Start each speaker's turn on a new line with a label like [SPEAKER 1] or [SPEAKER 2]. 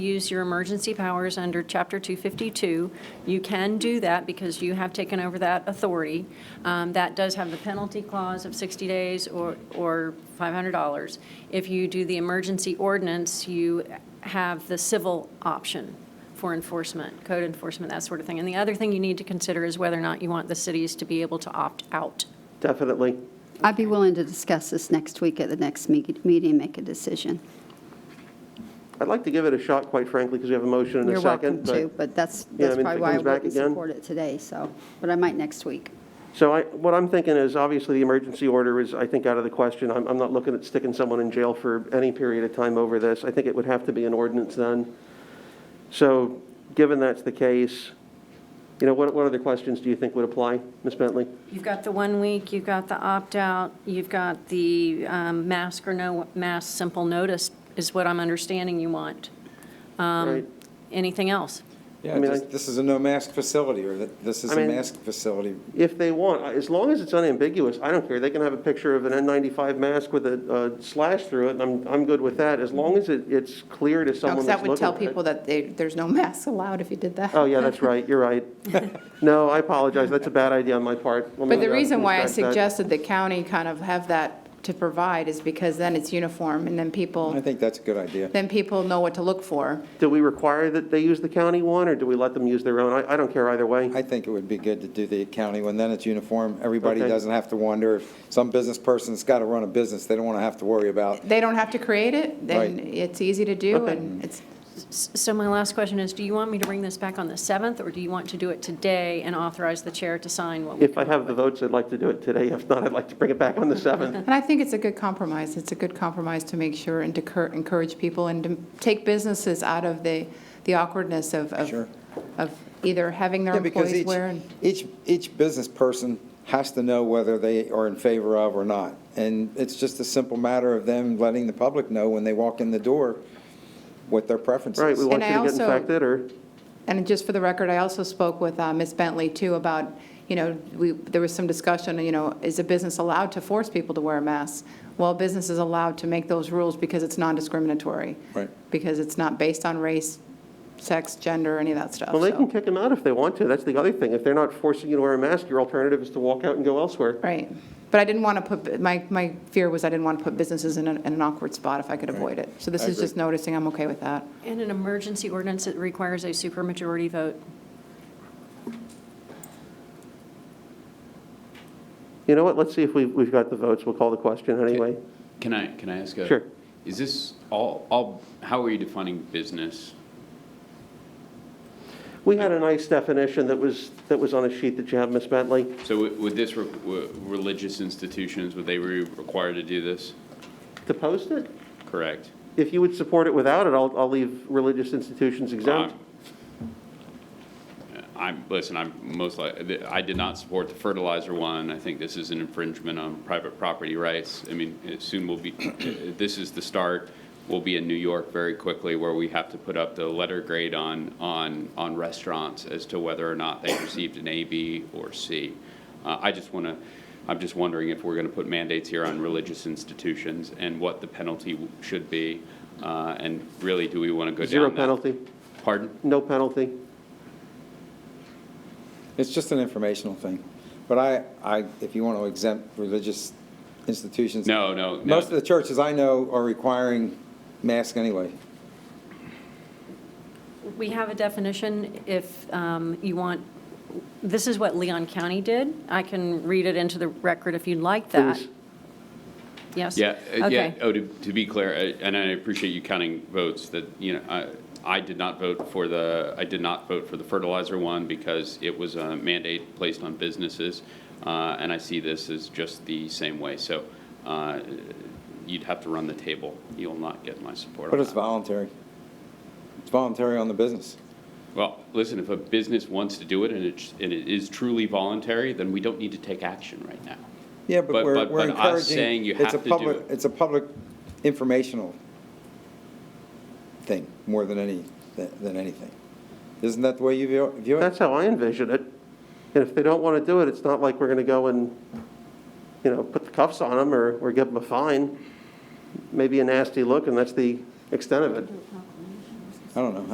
[SPEAKER 1] use your emergency powers under Chapter 252. You can do that because you have taken over that authority. Um, That does have the penalty clause of 60 days or or $500. If you do the emergency ordinance, you have the civil option for enforcement, code enforcement, that sort of thing. And the other thing you need to consider is whether or not you want the cities to be able to opt out.
[SPEAKER 2] Definitely.
[SPEAKER 3] I'd be willing to discuss this next week at the next me- meeting, make a decision.
[SPEAKER 2] I'd like to give it a shot, quite frankly, because we have a motion and
[SPEAKER 3] You're
[SPEAKER 2] a
[SPEAKER 3] welcome
[SPEAKER 2] second. but-
[SPEAKER 3] to, but that's,
[SPEAKER 2] Yeah, I
[SPEAKER 3] that's
[SPEAKER 2] mean, if
[SPEAKER 3] probably
[SPEAKER 2] it
[SPEAKER 3] why I
[SPEAKER 2] comes back
[SPEAKER 3] wouldn't
[SPEAKER 2] again-
[SPEAKER 3] support it today, so, but I might next week.
[SPEAKER 2] So I, what I'm thinking is, obviously, the emergency order is, I think, out of the question. I'm, I'm not looking at sticking someone in jail for any period of time over this. I think it would have to be an ordinance then. So, given that's the case, you know, what, what other questions do you think would apply, Ms. Bentley?
[SPEAKER 1] You've got the one week, you've got the opt-out, you've got the um, mask or no mask, simple notice is what I'm understanding you want.
[SPEAKER 4] Um,
[SPEAKER 2] Right?
[SPEAKER 1] Anything else?
[SPEAKER 2] I
[SPEAKER 5] Yeah,
[SPEAKER 2] mean,
[SPEAKER 5] just-
[SPEAKER 2] I-
[SPEAKER 5] this is a no-mask facility, or that, this is
[SPEAKER 2] I
[SPEAKER 5] a
[SPEAKER 2] mean-
[SPEAKER 5] mask facility.
[SPEAKER 2] If they want, I- as long as it's unambiguous, I don't care. They can have a picture of an N95 mask with a uh, slash through it, and I'm, I'm good with that, as long as it, it's clear to someone
[SPEAKER 4] Because
[SPEAKER 2] that's
[SPEAKER 4] that
[SPEAKER 2] looking
[SPEAKER 4] would tell
[SPEAKER 2] at it.
[SPEAKER 4] people that they- there's no masks allowed if you did that.
[SPEAKER 2] Oh, yeah, that's right, you're right. No, I apologize, that's a bad idea on my part. Let me,
[SPEAKER 4] But the
[SPEAKER 2] uh,
[SPEAKER 4] reason why I
[SPEAKER 2] retract that.
[SPEAKER 4] suggested the county kind of have that to provide is because then it's uniform, and then
[SPEAKER 5] I
[SPEAKER 4] people,
[SPEAKER 5] think that's a good idea.
[SPEAKER 4] then people know what to look for.
[SPEAKER 2] Do we require that they use the county one, or do we let them use their own? I, I don't care either way.
[SPEAKER 5] I think it would be good to do the county one, then it's uniform. Everybody
[SPEAKER 2] Okay.
[SPEAKER 5] doesn't have to wonder, if some business person's got to run a business, they don't want to have to worry about,
[SPEAKER 4] They don't have to create it, then
[SPEAKER 5] Right.
[SPEAKER 4] it's easy to do,
[SPEAKER 2] Okay.
[SPEAKER 4] and it's,
[SPEAKER 1] S- So my last question is, do you want me to bring this back on the 7th, or do you want to do it today and authorize the chair to sign what we
[SPEAKER 2] If I have the votes, I'd like to do it today. If not, I'd like to bring it back on the 7th.
[SPEAKER 4] and I think it's a good compromise. It's a good compromise to make sure and to cur- encourage people and to take businesses out of the, the awkwardness of,
[SPEAKER 5] Sure.
[SPEAKER 4] of, of either having their
[SPEAKER 5] Yeah, because
[SPEAKER 4] employees
[SPEAKER 5] each,
[SPEAKER 4] wear and.
[SPEAKER 5] each, each business person has to know whether they are in favor of or not. And it's just a simple matter of them letting the public know when they walk in the door what their preference is.
[SPEAKER 2] Right, we want
[SPEAKER 4] And
[SPEAKER 2] you
[SPEAKER 4] I
[SPEAKER 2] to get
[SPEAKER 4] also-
[SPEAKER 2] infected, or,
[SPEAKER 4] And just for the record, I also spoke with uh, Ms. Bentley, too, about, you know, we, there was some discussion, you know, is a business allowed to force people to wear a mask? Well, a business is allowed to make those rules because it's non-discriminatory.
[SPEAKER 5] Right.
[SPEAKER 4] Because it's not based on race, sex, gender, any of that stuff.
[SPEAKER 2] well, they
[SPEAKER 4] so-
[SPEAKER 2] can kick them out if they want to. That's the other thing. If they're not forcing you to wear a mask, your alternative is to walk out and go elsewhere.
[SPEAKER 4] Right. But I didn't want to put, my, my fear was I didn't want to put businesses in an in an awkward spot if I could avoid it. So this
[SPEAKER 5] I
[SPEAKER 4] is just
[SPEAKER 5] agree.
[SPEAKER 4] noticing I'm okay with that.
[SPEAKER 1] In an emergency ordinance, it requires a supermajority vote.
[SPEAKER 2] You know what, let's see if we've, we've got the votes. We'll call the question anyway.
[SPEAKER 6] Can I, can I ask a?
[SPEAKER 2] Sure.
[SPEAKER 6] Is this all, all, how are you defining business?
[SPEAKER 2] We had a nice definition that was, that was on a sheet that you have, Ms. Bentley.
[SPEAKER 6] So would would this, re- w- religious institutions, would they be required to do this?
[SPEAKER 2] To post it?
[SPEAKER 6] Correct?
[SPEAKER 2] If you would support it without it, I'll, I'll leave religious institutions exempt.
[SPEAKER 6] Ah, I'm- I'm, listen, I'm most like, I did not support the fertilizer one. I think this is an infringement on private property rights. I mean, it soon will be, this is the start. We'll be in New York very quickly where we have to put up the letter grade on, on, on restaurants as to whether or not they received an A, B, or C. Uh, I just want to, I'm just wondering if we're going to put mandates here on religious institutions and what the penalty w- should be. Uh, And really, do we want to go down
[SPEAKER 2] Zero
[SPEAKER 6] that-
[SPEAKER 2] penalty,
[SPEAKER 6] Pardon?
[SPEAKER 2] no penalty.
[SPEAKER 5] It's just an informational thing. But I, I, if you want to exempt religious institutions.
[SPEAKER 6] No, no, no.
[SPEAKER 5] Most of the churches I know are requiring masks anyway.
[SPEAKER 1] We have a definition if um, you want, this is what Leon County did. I can read it into the record if you'd like that.
[SPEAKER 2] Please.
[SPEAKER 1] Yes?
[SPEAKER 6] Yeah, uh, yeah,
[SPEAKER 1] Okay.
[SPEAKER 6] oh, to, to be clear, uh, and I appreciate you counting votes, that, you know, I, I did not vote for the, I did not vote for the fertilizer one because it was a mandate placed on businesses, uh, and I see this as just the same way, so, uh, you'd have to run the table, you'll not get my support on
[SPEAKER 5] But it's
[SPEAKER 6] that.
[SPEAKER 5] voluntary. It's voluntary on the business.
[SPEAKER 6] Well, listen, if a business wants to do it and it's, and it is truly voluntary, then we don't need to take action right now.
[SPEAKER 5] Yeah, but
[SPEAKER 6] But-
[SPEAKER 5] we're,
[SPEAKER 6] but-
[SPEAKER 5] we're
[SPEAKER 6] but us
[SPEAKER 5] encouraging.
[SPEAKER 6] saying you
[SPEAKER 5] it's
[SPEAKER 6] have
[SPEAKER 5] a
[SPEAKER 6] to do
[SPEAKER 5] public-
[SPEAKER 6] it.
[SPEAKER 5] It's a public informational thing, more than any, than than anything. Isn't that the way you view view it?
[SPEAKER 2] That's how I envision it. And if they don't want to do it, it's not like we're going to go and, you know, put the cuffs on them or, or give them a fine. Maybe a nasty look, and that's the extent of it.
[SPEAKER 5] I don't know.